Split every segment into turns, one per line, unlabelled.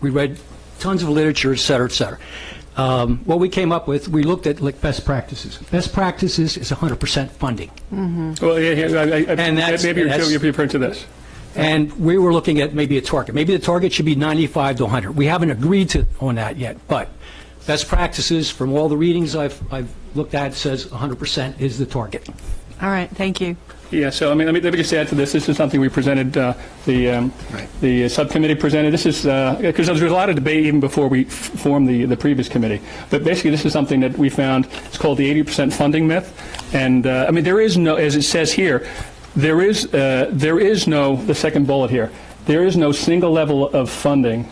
We read tons of literature, et cetera, et cetera. Um, What we came up with, we looked at like best practices. Best practices is 100% funding.
Well, yeah, yeah, I- I- I-
And that's-
maybe you're
that's-
you're referring to this.
And we were looking at maybe a target. Maybe the target should be 95 to 100. We haven't agreed to, on that yet, but best practices from all the readings I've, I've looked at says 100% is the target.
All right, thank you.
Yeah, so I mean, let me, let me just add to this. This is something we presented, uh, the, um, the subcommittee presented. This is, because there was a lot of debate even before we f- formed the, the previous committee. But basically, this is something that we found, it's called the 80% funding myth. And, uh, I mean, there is no, as it says here, there is, uh, there is no, the second bullet here, there is no single level of funding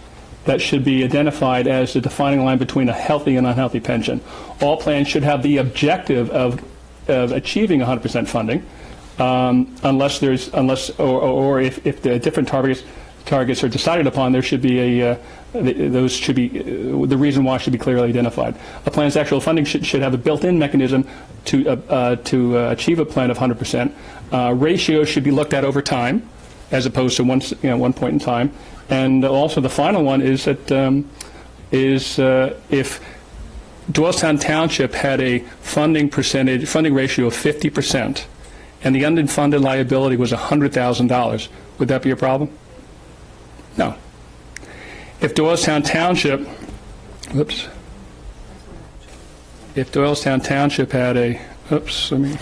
that should be identified as the defining line between a healthy and unhealthy pension. All plans should have the objective of, of achieving 100% funding, um, unless there's, unless, or, or or if, if the different targets, targets are decided upon, there should be a, uh, th- those should be, uh, the reason why should be clearly identified. A plan's actual funding should, should have a built-in mechanism to, uh, uh, to uh, achieve a plan of 100%. Uh, Ratios should be looked at over time as opposed to one, you know, one point in time. And also, the final one is that um, is uh, if Doylestown Township had a funding percentage, funding ratio of 50 percent, and the unfunded liability was $100,000, would that be a problem? No. If Doylestown Township, whoops, if Doylestown Township had a, oops, let me.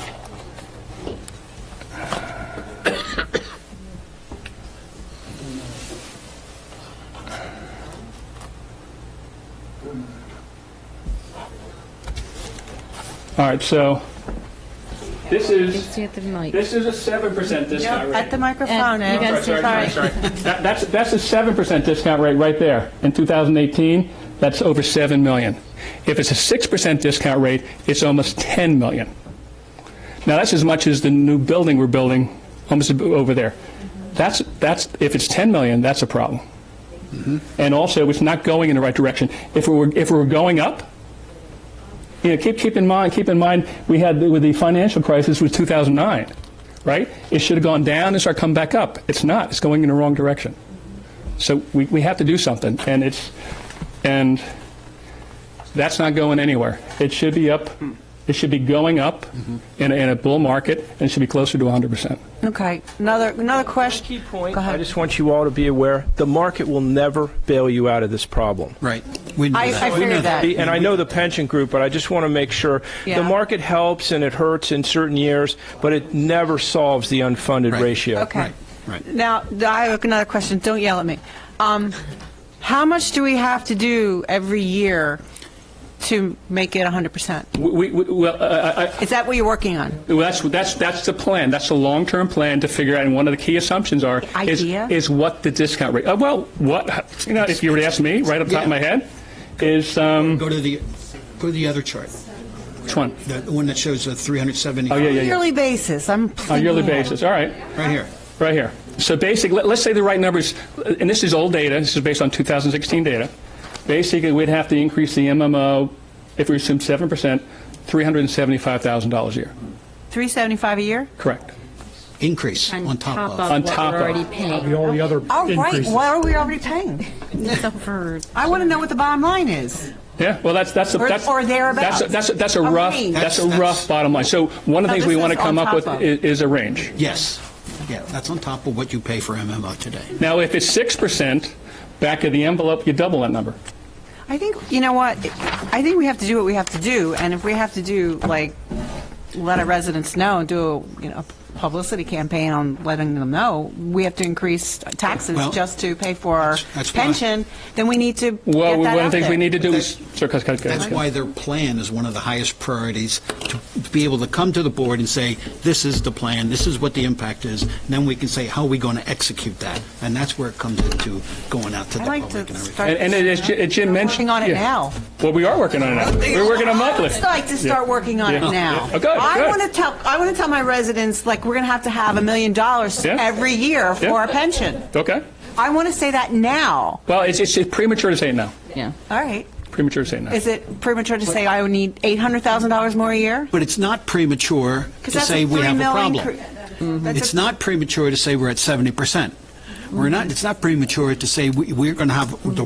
All right, so this is,
See at the mic.
this is a 7% discount rate.
At the microphone,
And you
Ed.
guys-
Sorry, sorry, sorry,
Sorry.
sorry. That- That's, that's a 7% discount rate right there. In 2018, that's over 7 million. If it's a 6% discount rate, it's almost 10 million. Now, that's as much as the new building we're building almost ab- over there. That's, that's, if it's 10 million, that's a problem. And also, it's not going in the right direction. If we were, if we were going up, you know, keep, keep in mind, keep in mind, we had with the financial crisis was 2009, right? It should have gone down and start coming back up. It's not. It's going in the wrong direction. So we, we have to do something, and it's and that's not going anywhere. It should be up. It should be going up in, a, in a bull market, and it should be closer to 100 percent.
Okay, another, another question.
Key point,
Go ahead.
I just want you all to be aware, the market will never bail you out of this problem.
Right. We know
I-
that.
I
We know
figured that.
The- And I know the pension group, but I just want to make sure,
Yeah.
the market helps and it hurts in certain years, but it never solves the unfunded
Right.
ratio.
Okay.
Right, right.
Now, th- I have another question, don't yell at me. Um, How much do we have to do every year to make it 100%?
We, we, well, I, I,
Is that what you're working on?
Well, that's, that's, that's the plan. That's the long-term plan to figure out, and one of the key assumptions are, is,
Idea?
is what the discount rate, uh, well, what, you know, if you were to ask me, right up top of my head, is, um,
Go to the, go to the other chart,
which one?
the one that shows the 370.
Oh, yeah, yeah, yeah.
Yearly basis, I'm.
On a yearly basis, all right,
Right here.
right here. So basically, let- let's say the right numbers, and this is old data, this is based on 2016 data. Basically, we'd have to increase the MMO, if we assume 7%, $375,000 a year,
375 a year?
correct?
Increase on top of.
On
what
top
we're
of.
already paying.
all the other
All right,
increases.
what are we already paying?
It's over.
I want to know what the bottom line is.
Yeah, well, that's, that's, a-
Or-
that's.
or thereabouts.
That's, a- that's, a- that's a
A
rough,
range.
that's a
That's-
rough
that's-
bottom line. So one of the
No,
things we
this
want to
is on
come up
top
with i-
of.
is a range.
Yes. Yeah, that's on top of what you pay for MMO today.
Now, if it's 6%, back of the envelope, you double that number.
I think, you know what, I think we have to do what we have to do, and if we have to do, like, let our residents know, do, a you know, a publicity campaign on letting them know, we have to increase taxes
Well,
just to pay for our
that's why-
pension, then we need to get that
Well, one of the
out
things we
there.
need to do is,
That's-
sorry, cut, cut, cut,
That's
cut.
why their plan is one of the highest priorities, to be able to come to the board and say, this is the plan, this is what the impact is, and then we can say, how are we going to execute that? And that's where it comes into going out to the
I'd like
public
to
and everything.
start.
And, and as Ji- as Jim mentioned.
Working on it
yeah.
now.
Well, we are working on it now. We're working on monthly.
I'd like to start
Yeah.
working on it
Yeah.
now.
Yeah. Okay,
I
good.
want to tell, I want to tell my residents, like, we're going to have to have a million dollars
Yeah.
every year for
Yeah.
our pension.
Okay.
I want to say that now.
Well, it's, it's it's premature to say it now.
Yeah.
All right.
Premature to say it now.
Is it premature to say I would need $800,000 more a year?
But it's not premature to
Because that's
say
a
we
three
have a
mil
problem.
incre- that's
It's
a-
not premature to say we're at 70%. We're not, it's not premature to say we- we're going to have the